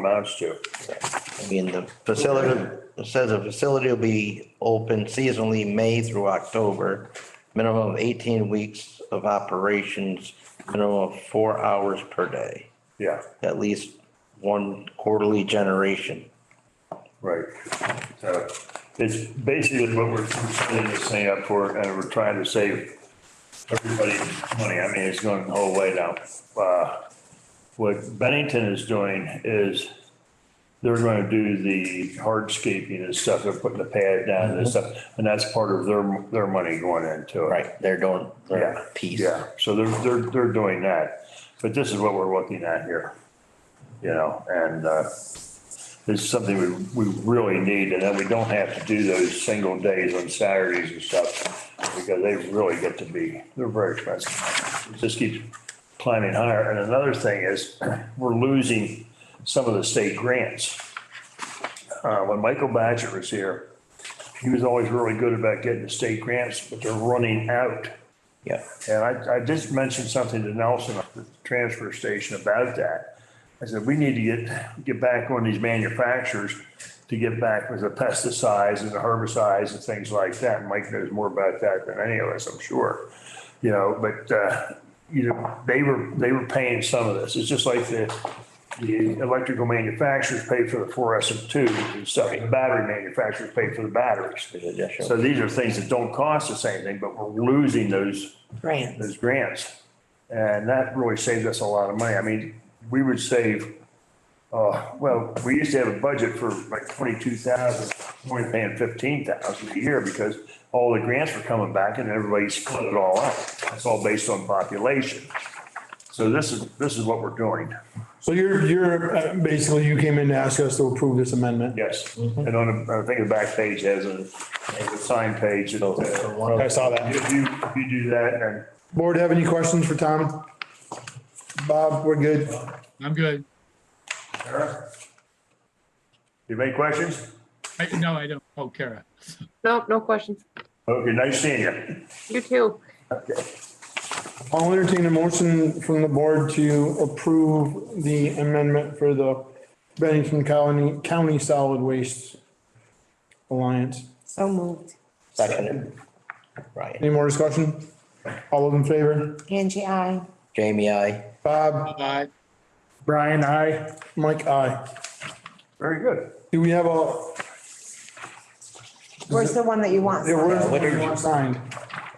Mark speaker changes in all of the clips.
Speaker 1: amounts to.
Speaker 2: I mean, the facility, it says the facility will be open seasonally May through October. Minimum of eighteen weeks of operations, minimum of four hours per day,
Speaker 1: Yeah,
Speaker 2: at least one quarterly generation.
Speaker 1: right. So it's basically what we're setting this thing up for, and we're trying to save everybody money. I mean, it's going the whole way now. Uh, What Bennington is doing is they're going to do the hardscaping and stuff. They're putting the pad down and stuff, and that's part of their, their money going into it.
Speaker 2: Right, they're doing
Speaker 1: Yeah,
Speaker 2: their piece.
Speaker 1: Yeah, so they're, they're, they're doing that, but this is what we're looking at here, you know, and, uh, it's something we, we really need, and then we don't have to do those single days on Saturdays and stuff, because they really get to be, they're very expensive. It Just keeps climbing higher, and another thing is, we're losing some of the state grants. Uh, when Michael Badger was here, he was always really good about getting the state grants, but they're running out.
Speaker 2: Yeah.
Speaker 1: And I, I just mentioned something to Nelson at the transfer station about that. I said, we need to get, get back on these manufacturers to get back with the pesticides and the herbicides and things like that. Mike knows more about that than any of us, I'm sure. You know, but, uh, you know, they were, they were paying some of this. It's just like the, the electrical manufacturers pay for the fluorescent tubes and stuff. The Battery manufacturers pay for the batteries.
Speaker 2: additional.
Speaker 1: So these are things that don't cost us anything, but we're losing those
Speaker 3: Grants.
Speaker 1: those grants. And that really saved us a lot of money. I mean, we would save, uh, well, we used to have a budget for like twenty-two thousand, we're only paying fifteen thousand a year because all the grants were coming back and everybody split it all up. It's all based on population. So this is, this is what we're doing.
Speaker 4: So you're, you're, uh, basically you came in to ask us to approve this amendment?
Speaker 1: Yes. And on, the- I think the back page has a, has a sign page. that, uh,
Speaker 4: I saw that.
Speaker 1: If you, if you do that and
Speaker 4: Board have any questions for Tom? Bob, we're good.
Speaker 5: I'm good.
Speaker 1: you have any questions?
Speaker 5: I, no, I don't. Oh, Kara.
Speaker 3: Nope, no questions.
Speaker 1: Okay, nice seeing you.
Speaker 3: You too.
Speaker 4: I'll entertain a motion from the board to approve the amendment for the Bennington County, County Solid Waste Alliance.
Speaker 3: So moved.
Speaker 2: Second. Right.
Speaker 4: Any more discussion? All of in favor?
Speaker 3: Angie, I.
Speaker 2: Jamie, I,
Speaker 4: Bob,
Speaker 5: Bye.
Speaker 4: Brian, aye. Mike, aye.
Speaker 1: Very good.
Speaker 4: Do we have a,
Speaker 3: Where's the one that you want?
Speaker 4: there was,
Speaker 2: what did you-
Speaker 4: signed?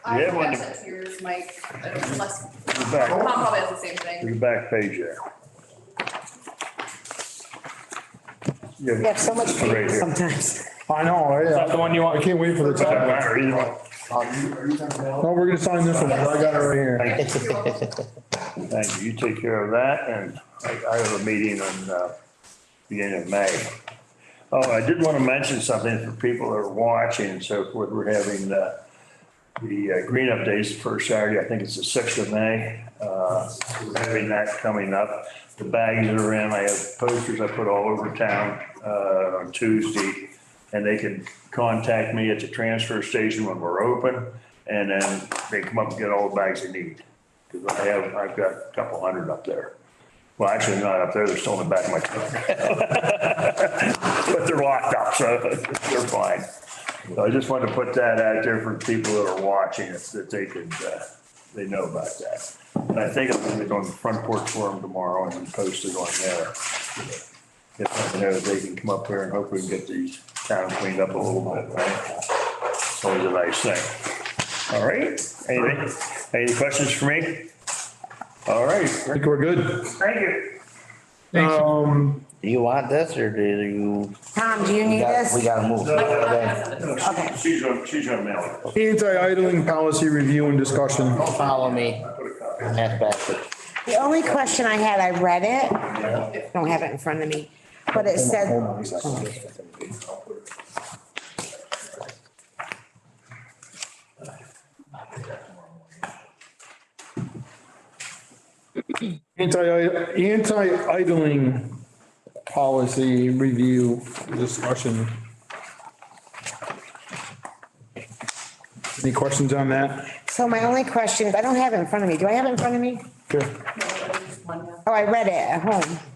Speaker 6: I
Speaker 1: Yeah,
Speaker 6: have
Speaker 1: when-
Speaker 6: access to yours, Mike, unless,
Speaker 1: You're back.
Speaker 6: Tom probably has the same thing.
Speaker 1: Your back page there.
Speaker 3: We have so much paper sometimes.
Speaker 4: I know, yeah. That's the one you want. I can't wait for the
Speaker 1: Doesn't
Speaker 4: time.
Speaker 1: matter, either one.
Speaker 4: No, we're gonna sign this one. I got it right here.
Speaker 1: Thank you. You take care of that and I, I have a meeting on, uh, beginning of May. Oh, I did want to mention something for people that are watching and so forth. We're having, uh, the uh, green up days the first Saturday, I think it's the sixth of May. Uh, we're having that coming up. The bags are in. I have posters I put all over town, uh, on Tuesday. And they can contact me at the transfer station when we're open and then they come up and get all the bags they need. Cause I have, I've got a couple hundred up there. Well, actually not up there. They're still in the back of my truck. But they're locked up, so they're fine. So I just wanted to put that out there for people that are watching, if- that they could, uh, they know about that. And I think I'm gonna go on the front porch forum tomorrow and then post it on there. If, you know, they can come up here and hopefully get the town cleaned up a little bit, right? It's Always a nice thing. All right, anything, any questions for me? All right,
Speaker 4: I think we're good.
Speaker 1: thank you.
Speaker 5: Thanks.
Speaker 4: Um,
Speaker 2: do you want this or do you?
Speaker 3: Tom, do you
Speaker 2: We
Speaker 3: need
Speaker 2: got- we
Speaker 3: this?
Speaker 2: gotta move. Okay.
Speaker 1: No, she- She's on, she's on mail.
Speaker 4: anti-idling policy review and discussion.
Speaker 2: Follow me. That's backwards.
Speaker 3: The only question I had, I read it, don't have it in front of me, but it said,
Speaker 4: Anti, anti-idling policy review discussion. Any questions on that?
Speaker 3: so my only question, is I don't have it in front of me. Do I have it in front of me?
Speaker 4: Sure.
Speaker 3: Oh, I read it at home.